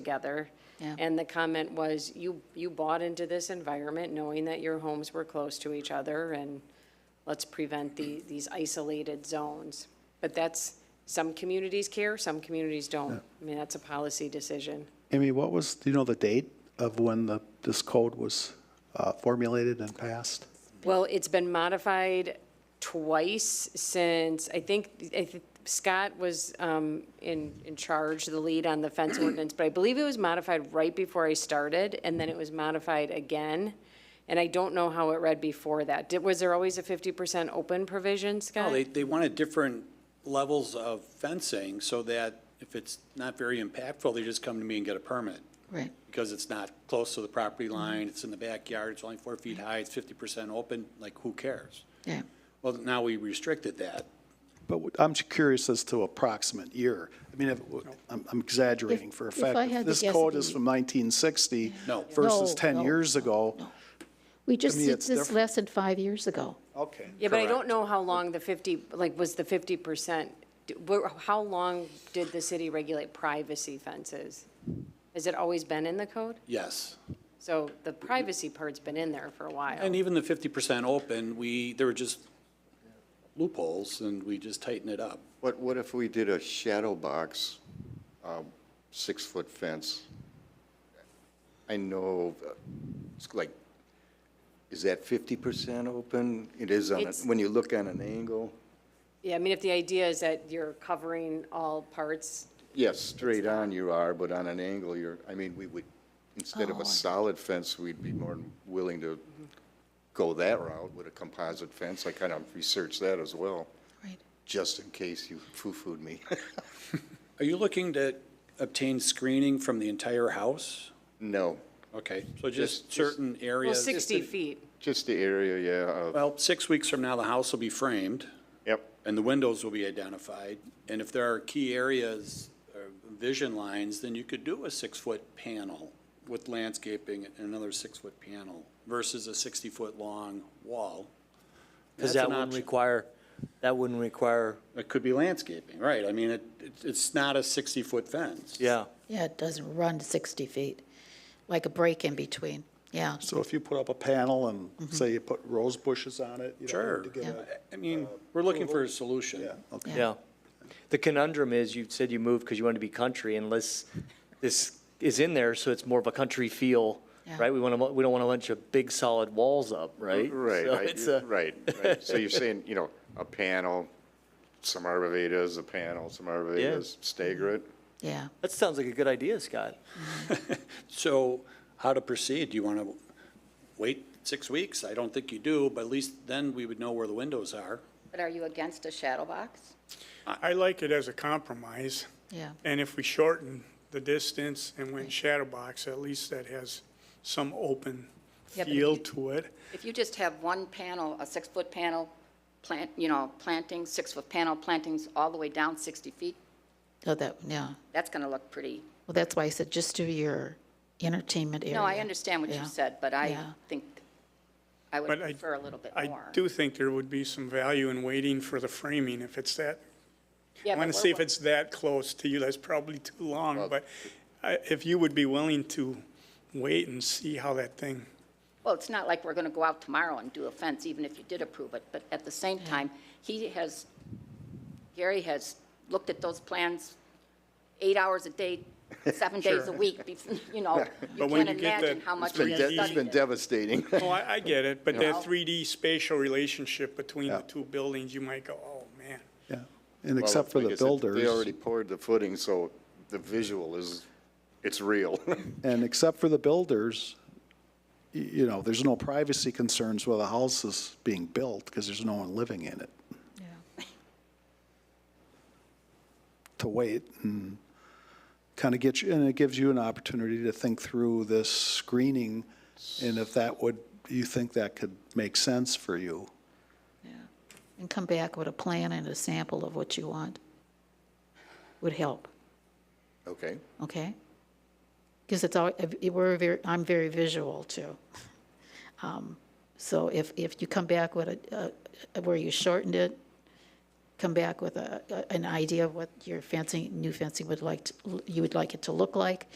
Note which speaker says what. Speaker 1: together.
Speaker 2: Yeah.
Speaker 1: And the comment was, you, you bought into this environment knowing that your homes were close to each other and let's prevent the, these isolated zones. But that's, some communities care, some communities don't. I mean, that's a policy decision.
Speaker 3: Amy, what was, do you know the date of when the, this code was uh, formulated and passed?
Speaker 1: Well, it's been modified twice since, I think, I thi- Scott was um, in, in charge, the lead on the fence ordinance, but I believe it was modified right before I started, and then it was modified again. And I don't know how it read before that. Did, was there always a 50% open provision,
Speaker 4: No,
Speaker 1: Scott?
Speaker 4: Oh, they, they wanted different levels of fencing so that if it's not very impactful, they just come to me and get a permit.
Speaker 2: Right.
Speaker 4: Because it's not close to the property
Speaker 5: Mm-hmm.
Speaker 4: line, it's in the backyard, it's only four feet high, it's fifty percent open, like, who cares?
Speaker 2: Yeah.
Speaker 4: Well, now we restricted that.
Speaker 3: But w- I'm ju- curious as to approximate year. I mean, if- I'm I'm exaggerating for
Speaker 2: If-
Speaker 3: effect.
Speaker 2: if I had to
Speaker 3: This
Speaker 2: guess,
Speaker 3: code
Speaker 2: it'd
Speaker 3: is
Speaker 2: be-
Speaker 3: from 1960
Speaker 4: No.
Speaker 3: versus
Speaker 2: No,
Speaker 3: 10
Speaker 2: no,
Speaker 3: years ago.
Speaker 2: We just
Speaker 3: me,
Speaker 2: did
Speaker 3: it's
Speaker 2: this
Speaker 3: different.
Speaker 2: lesson five years ago.
Speaker 3: Okay.
Speaker 1: Yeah, but I don't
Speaker 4: Correct.
Speaker 1: know how long the 50, like, was the 50%, d- where- how long did the city regulate privacy fences? Has it always been in the code?
Speaker 4: Yes.
Speaker 1: So the privacy part's been in there for a while.
Speaker 4: And even the fifty percent open, we, there were just loopholes, and we just tightened it up.
Speaker 5: What, what if we did a shadow box, um, six-foot fence? I know, uh, it's like, is that fifty percent open? It is on, a-
Speaker 1: It's-
Speaker 5: when you look on an angle?
Speaker 1: Yeah, I mean, if the idea is that you're covering all parts,
Speaker 5: Yes, straight on you are, but on an angle, you're, I mean, we would, instead of
Speaker 2: Oh.
Speaker 5: a solid fence, we'd be more than willing to go that route with a composite fence. I kind of researched that as well,
Speaker 2: Right.
Speaker 5: just in case you foo-fooed me.
Speaker 4: Are you looking to obtain screening from the entire house?
Speaker 5: No,
Speaker 4: Okay, so
Speaker 5: Just-
Speaker 4: just
Speaker 5: just-
Speaker 4: certain
Speaker 1: well,
Speaker 4: areas.
Speaker 1: 60 feet.
Speaker 5: just the area, yeah, of-
Speaker 4: Well, six weeks from now, the house will be framed,
Speaker 5: yep.
Speaker 4: and the windows will be identified, and if there are key areas, or vision lines, then you could do a six-foot panel with landscaping and another six-foot panel versus a sixty-foot-long wall.
Speaker 6: Because
Speaker 4: That's
Speaker 6: that
Speaker 4: an
Speaker 6: wouldn't
Speaker 4: option.
Speaker 6: require, that wouldn't require,
Speaker 4: It could be landscaping, right, I mean, it, it's- it's not a sixty-foot fence.
Speaker 6: yeah.
Speaker 2: Yeah, it doesn't run to 60 feet, like a break in between. Yeah.
Speaker 3: So if you put up a panel and say you put rose bushes on it, you
Speaker 4: Sure,
Speaker 3: don't need to get a.
Speaker 4: I mean, we're looking for a solution.
Speaker 3: okay.
Speaker 6: Yeah. The conundrum is, you said you moved because you wanted to be country unless this is in there, so it's more of a country feel,
Speaker 2: Yeah.
Speaker 6: right? We want to, we don't want a bunch of big solid walls up, right?
Speaker 5: Right,
Speaker 6: So
Speaker 5: I-
Speaker 6: it's a-
Speaker 5: right, right. So you're saying, you know, a panel, some arborvitae's a panel, some arborvitae's stagger it?
Speaker 2: Yeah.
Speaker 6: That sounds like a good idea, Scott.
Speaker 4: So how to proceed? Do you want to wait six weeks? I don't think you do, but at least then we would know where the windows are.
Speaker 7: But are you against a shadow box?
Speaker 8: I like it as a compromise.
Speaker 2: Yeah.
Speaker 8: And if we shorten the distance and went shadow box, at least that has some open
Speaker 1: Yeah, but if
Speaker 8: feel
Speaker 1: you-
Speaker 8: to it.
Speaker 7: If you just have one panel, a six-foot panel, plant, you know, planting, six-foot panel plantings all the way down 60 feet,
Speaker 2: Oh, that, yeah.
Speaker 7: that's going to look pretty.
Speaker 2: Well, that's why I said just do your entertainment area.
Speaker 7: No, I understand what
Speaker 2: Yeah.
Speaker 7: you said, but I
Speaker 2: Yeah.
Speaker 7: think I would
Speaker 8: But I-
Speaker 7: prefer a little bit
Speaker 8: I
Speaker 7: more.
Speaker 8: do think there would be some value in waiting for the framing if it's that.
Speaker 1: Yeah,
Speaker 8: I want
Speaker 1: but
Speaker 8: to see
Speaker 1: we're-
Speaker 8: if it's that close to you. That's probably too long, but I- if you would be willing to wait and see how that thing,
Speaker 7: Well, it's not like we're going to go out tomorrow and do a fence, even if you did approve it, but at the same time, he has, Gary has looked at those plans eight hours a day, seven days a week, bef- you know, you
Speaker 8: But when
Speaker 7: can't
Speaker 8: you get that-
Speaker 7: imagine how much
Speaker 8: It's been
Speaker 7: he has
Speaker 8: de-
Speaker 7: studied
Speaker 8: it's
Speaker 5: It's been
Speaker 7: it.
Speaker 5: devastating.
Speaker 8: oh, I, I get it, but that
Speaker 7: Yeah.
Speaker 8: 3D spatial relationship between the two buildings, you might go, oh, man.
Speaker 3: Yeah. And except for the
Speaker 5: Like I said, They
Speaker 3: builders,
Speaker 5: already poured the footing, so the visual is, it's real.
Speaker 3: and except for the builders, y- you know, there's no privacy concerns while the house is being built because there's no one living in it. to wait and kind of get you, and it gives you an opportunity to think through this screening and if that would, you think that could make sense for you.
Speaker 2: And come back with a plan and a sample of what you want. Would help,
Speaker 5: Okay,
Speaker 2: okay? Because it's all, we're very, I'm very visual too. Um, So if, if you come back with a, a- where you shortened it, come back with a, a- an idea of what your fencing, new fencing would like, to- you would like it to look like.